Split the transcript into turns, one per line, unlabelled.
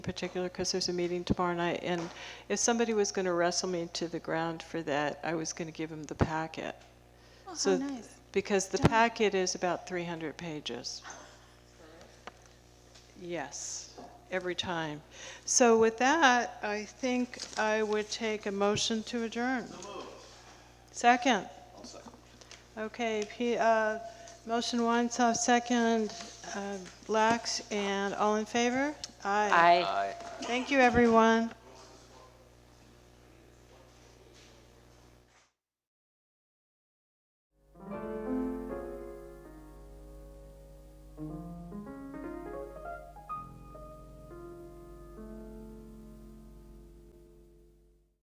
particular because there's a meeting tomorrow night. And if somebody was going to wrestle me to the ground for that, I was going to give him the packet.
Oh,
So,
how nice.
Because the
Done.
packet is about 300 pages. Yes, every time. So with that, I think I would take a motion to adjourn. Second? Okay, P, uh, motion one, so second, uh, Lax, and all in favor? Aye.
Aye.
Thank you, everyone.